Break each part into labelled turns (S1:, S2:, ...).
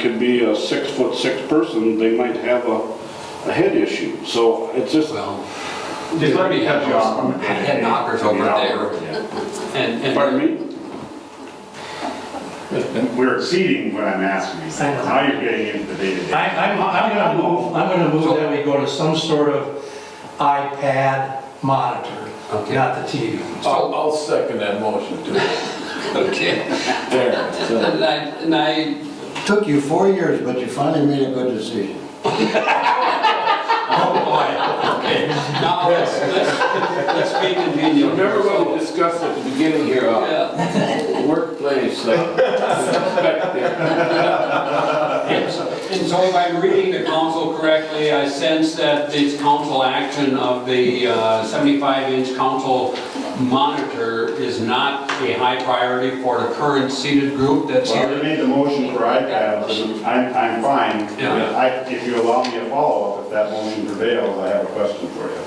S1: could be a six foot six person, they might have a, a head issue. So it's just,
S2: Well,
S3: Just let me have yours.
S2: I had knockers over there and, and.
S1: pardon me?
S4: We're exceeding what I'm asking you.
S3: I know.
S4: Now you're getting into the day-to-day.
S3: I, I'm, I'm gonna move, I'm gonna move that we go to some sort of iPad monitor,
S2: Okay.
S3: not the TV.
S5: I'll, I'll second that motion too.
S2: Okay.
S5: There, so,
S2: And I, and I,
S6: Took you four years, but you finally made a good decision.
S2: oh boy, okay. Now, let's, let's, let's be
S5: you
S2: convenient.
S5: remember what we discussed at the beginning here, uh,
S2: Yeah,
S5: workplace, uh, perspective.
S2: and so if I'm reading the council correctly, I sense that this council action of the uh, 75-inch council monitor is not a high priority for the current seated group that's
S4: Well, you
S2: here.
S4: made the motion for iPads, I'm, I'm fine.
S2: Yeah.
S4: I, if you allow me a follow-up, if that motion prevails, I have a question for you.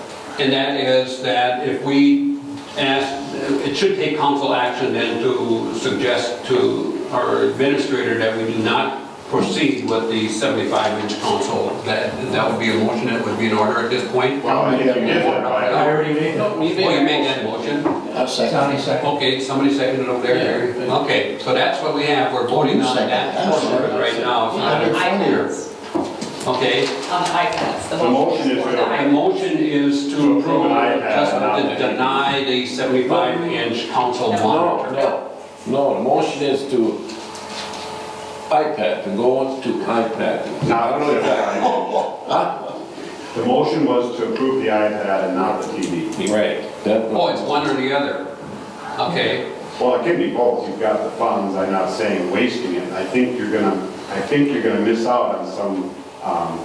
S2: And that is that if we ask, it should take council action then to suggest to our administrator that we do not proceed with the 75-inch console. That, that would be a motion that would be in order at this point?
S4: Well, I think you did that,
S3: I
S4: right?
S3: already made it.
S5: No, you
S2: Oh, you
S5: made
S2: made
S5: that
S2: that motion?
S6: A second.
S3: Johnny second.
S2: Okay, somebody seconded over there, Gary.
S5: Yeah.
S2: Okay, so that's what we have, we're voting on that portion of it right now. It's not in
S6: Second.
S7: On
S2: front of you.
S7: iPads,
S2: Okay,
S7: on iPads.
S4: The motion is
S7: for
S4: to-
S7: the
S2: my
S7: iPad.
S2: motion is to approve,
S4: iPad,
S2: just
S4: not
S2: to
S4: the-
S2: deny the 75-inch console
S5: No,
S2: monitor.
S5: no, no, the motion is to iPad, to go to iPad.
S4: Not really.
S5: Huh?
S4: The motion was to approve the iPad and not the TV.
S5: Right. that
S2: Oh,
S5: was-
S2: it's one or the other. Okay,
S4: Well, it can be both, you've got the funds, I'm not saying wasting it. I think you're gonna, I think you're gonna miss out on some, um,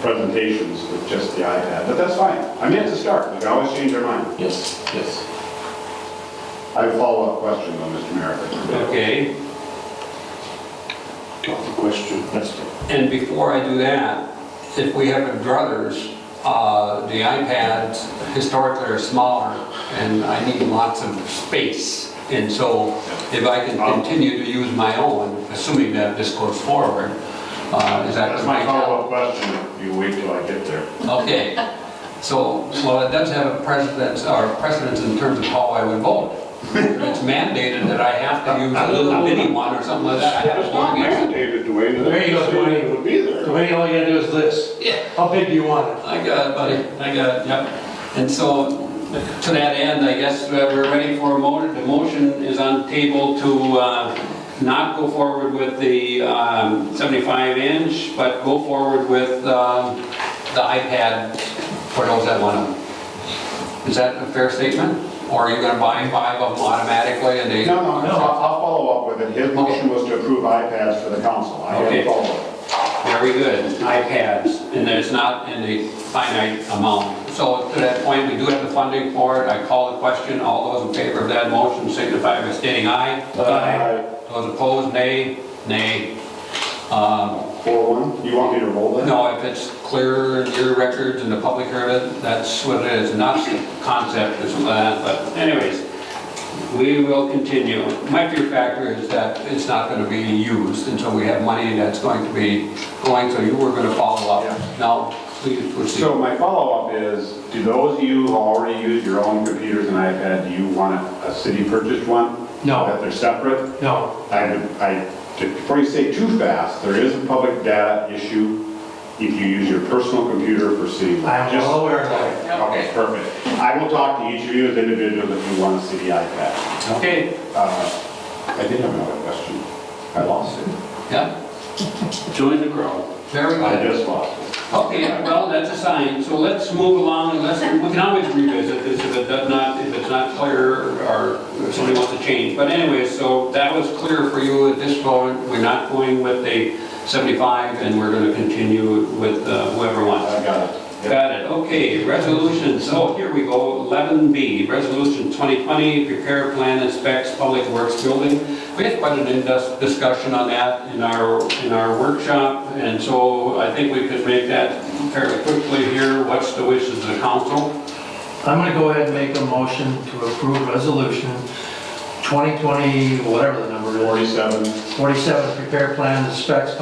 S4: presentations with just the iPad, but that's fine. I mean, it's a start, you can always change your mind.
S5: Yes, yes.
S4: I have a follow-up question though, Mr. Merrick.
S2: okay.
S1: Got the question.
S2: And before I do that, if we have a druthers, uh, the iPads historically are smaller, and I need lots of space. And so if I can continue to use my own, assuming that this goes forward, uh, is that...
S4: That's my follow-up question, you wait till I get there.
S2: Okay, so, well, it does have a precedence, or precedence in terms of how I would vote. It's mandated that I have to use a little mini one or something like that. I have
S1: It's
S2: to
S1: not
S2: log in.
S1: mandated, Dwayne.
S3: There you go, Dwayne.
S1: It would be there.
S3: So anyway, all you gotta do is this.
S2: Yeah.
S3: How big do you want it?
S2: I got it, buddy, I got it, yep. And so, to that end, I guess uh, we're ready for a motion. The motion is on the table to uh, not go forward with the 75-inch, but go forward with um, the iPad for those that want them. Is that a fair statement? Or are you going to buy five of them automatically and they...
S4: No, no, no, I'll I'll follow up with it. His motion was to approve iPads for the council. I have
S2: Okay.
S4: a follow-up.
S2: Very good, iPads, and there's not in a finite amount. So to that point, we do have the funding for it, I call the question, all those in favor of that motion signify by stating aye. Those opposed, nay, nay. Um,
S4: Four one, you want me to roll that?
S2: No, if it's clear in your records and the public heard it, that's what it is, not the concept or something like that, but anyways, we will continue. My fear factor is that it's not going to be used until we have money that's going to be going, so you were going to follow
S4: Yeah.
S2: up. Now, please
S4: So
S2: proceed.
S4: my follow-up is, do those of you who already use your own computers and iPad, do you want a city purchased one?
S3: No.
S4: That they're separate?
S3: No,
S4: I, would- I, before you say too fast, there is a public data issue if you use your personal computer for city.
S3: I'm
S4: Just-
S3: well aware of that.
S4: Okay, perfect. I will talk to each of you as individuals if you want a city iPad.
S2: Okay,
S4: Uh, I did have another question. I lost it.
S2: yeah,
S1: Join the crowd.
S2: very
S4: I
S2: good.
S4: just lost it.
S2: Okay, well, that's a sign, so let's move along, and let's, we can always revisit this if it does not, if it's not clear, or if somebody wants to change. But anyway, so that was clear for you at this point, we're not going with the 75, and we're gonna continue with uh, whoever wants.
S4: I got it. Yep.
S2: Got it, okay, resolutions, oh, here we go, 11B, resolution 2020, prepare plan and specs public works building. We had quite an in-depth discussion on that in our, in our workshop, and so I think we could make that fairly quickly here, what's the wishes of the council?
S3: I'm gonna go ahead and make a motion to approve resolution 2020, whatever the number is,
S4: 47.
S3: 47, prepare plan and specs